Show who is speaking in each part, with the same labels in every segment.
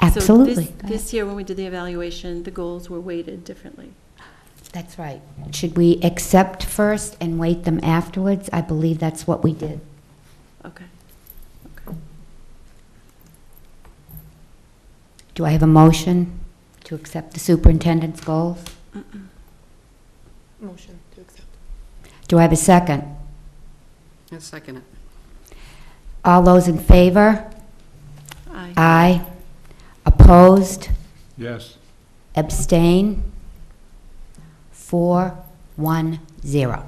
Speaker 1: Absolutely.
Speaker 2: So this- this year, when we did the evaluation, the goals were weighted differently.
Speaker 1: That's right. Should we accept first and weight them afterwards? I believe that's what we did.
Speaker 2: Okay. Okay.
Speaker 1: Do I have a motion to accept the superintendent's goals?
Speaker 3: Motion to accept.
Speaker 1: Do I have a second?
Speaker 4: I second it.
Speaker 1: All those in favor?
Speaker 2: Aye.
Speaker 1: Aye. Opposed?
Speaker 5: Yes.
Speaker 1: Abstain? Four, one, zero.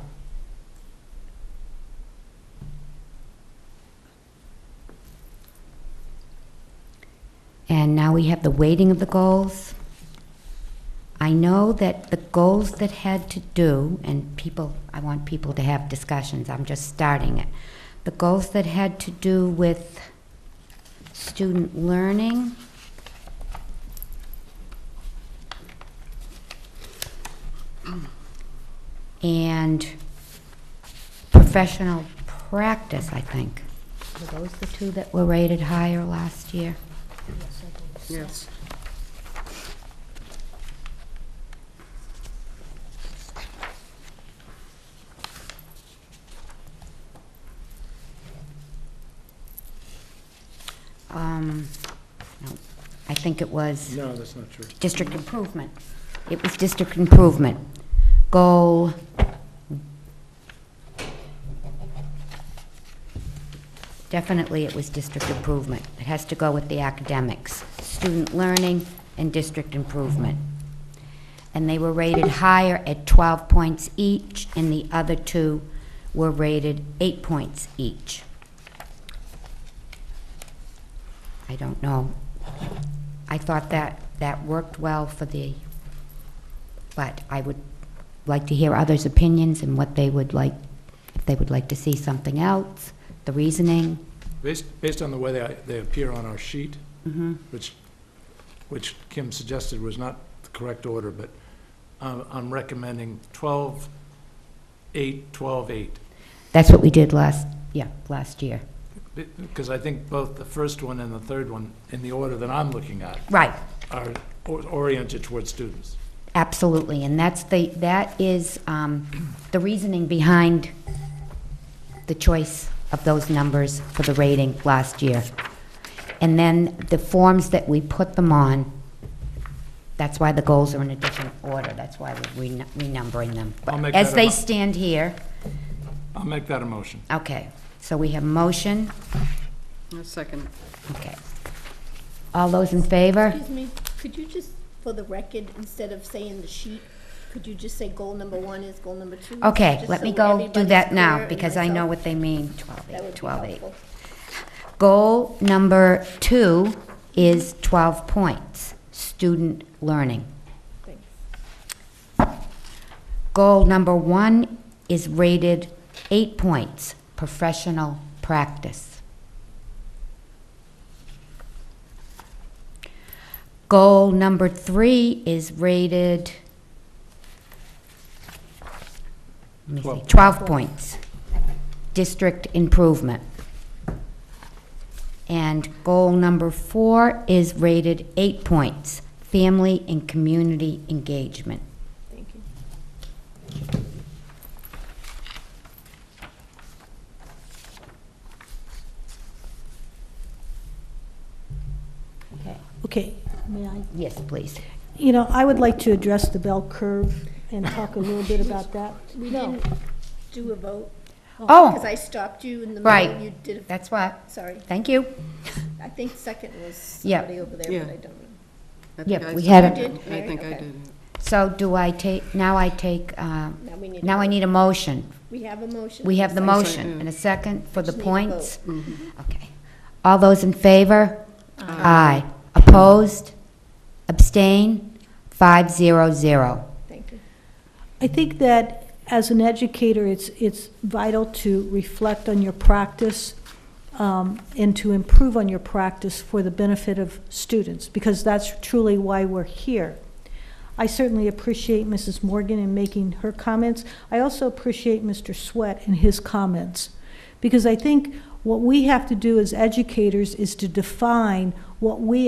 Speaker 1: And now we have the weighting of the goals. I know that the goals that had to do, and people, I want people to have discussions, I'm just starting it. The goals that had to do with student learning. and professional practice, I think. Were those the two that were rated higher last year?
Speaker 4: Yes.
Speaker 1: Um, no, I think it was.
Speaker 5: No, that's not true.
Speaker 1: District improvement. It was district improvement. Goal. Definitely it was district improvement. It has to go with the academics, student learning, and district improvement. And they were rated higher at 12 points each, and the other two were rated eight points each. I don't know I thought that, that worked well for the, but I would like to hear others' opinions and what they would like, if they would like to see something else, the reasoning.
Speaker 5: Based, based on the way they, they appear on our sheet, which, which Kim suggested was not the correct order, but I'm, I'm recommending 12, 8, 12, 8.
Speaker 1: That's what we did last, yeah, last year.
Speaker 5: Because I think both the first one and the third one, in the order that I'm looking at,
Speaker 1: Right,
Speaker 5: are or- oriented towards students.
Speaker 1: absolutely, and that's the, that is um, the reasoning behind the choice of those numbers for the rating last year. And then the forms that we put them on, that's why the goals are in a different order, that's why we're renu- renumbering them. But
Speaker 5: I'll make
Speaker 1: As
Speaker 5: that a
Speaker 1: they
Speaker 5: mo-
Speaker 1: stand here,
Speaker 5: I'll make that a motion.
Speaker 1: okay, so we have motion,
Speaker 4: I second it.
Speaker 1: okay. All those in favor?
Speaker 6: Excuse me, could you just, for the record, instead of saying the sheet, could you just say goal number one is goal number two?
Speaker 1: Okay,
Speaker 6: Just
Speaker 1: let me
Speaker 6: so
Speaker 1: go do
Speaker 6: everybody's
Speaker 1: that
Speaker 6: clear
Speaker 1: now,
Speaker 6: and
Speaker 1: because I know
Speaker 6: myself.
Speaker 1: what they mean, 12,
Speaker 6: That would
Speaker 1: 8,
Speaker 6: be
Speaker 1: 12, 8.
Speaker 6: helpful.
Speaker 1: Goal number two is 12 points, student learning.
Speaker 6: Thanks.
Speaker 1: Goal number one is rated eight points, professional practice. Goal number three is rated, let me see,
Speaker 5: Twelve.
Speaker 1: 12 points, district improvement. And goal number four is rated eight points, family and community engagement.
Speaker 6: Thank you.
Speaker 7: Okay, may I?
Speaker 1: Yes, please.
Speaker 7: You know, I would like to address the bell curve and talk a little bit about that.
Speaker 6: We
Speaker 7: No.
Speaker 6: didn't do a vote, because
Speaker 1: Oh,
Speaker 6: I stopped you in the middle,
Speaker 1: Right.
Speaker 6: and you did, a-
Speaker 1: that's what,
Speaker 6: sorry,
Speaker 1: thank you.
Speaker 6: I think second was
Speaker 1: Yeah.
Speaker 6: somebody over there,
Speaker 4: Yeah.
Speaker 6: but I don't know.
Speaker 4: I
Speaker 1: Yeah,
Speaker 4: think I
Speaker 1: we had
Speaker 4: seconded
Speaker 6: it. You did,
Speaker 4: I think I
Speaker 6: Mary?
Speaker 4: did.
Speaker 1: So do I take, now I take, uh,
Speaker 6: Now we need. a
Speaker 1: now I
Speaker 6: vote.
Speaker 1: need a motion.
Speaker 6: We have a motion.
Speaker 1: We have the
Speaker 6: Second.
Speaker 1: motion and a second for the
Speaker 6: Just need a vote. Mm-hmm.
Speaker 1: points. Okay. All those in favor? Aye. Opposed? Abstain? Five zero zero.
Speaker 6: Thank you.
Speaker 7: I think that as an educator, it's, it's vital to reflect on your practice um, and to improve on your practice for the benefit of students, because that's truly why we're here. I certainly appreciate Mrs. Morgan in making her comments. I also appreciate Mr. Sweat and his comments, because I think what we have to do as educators is to define what we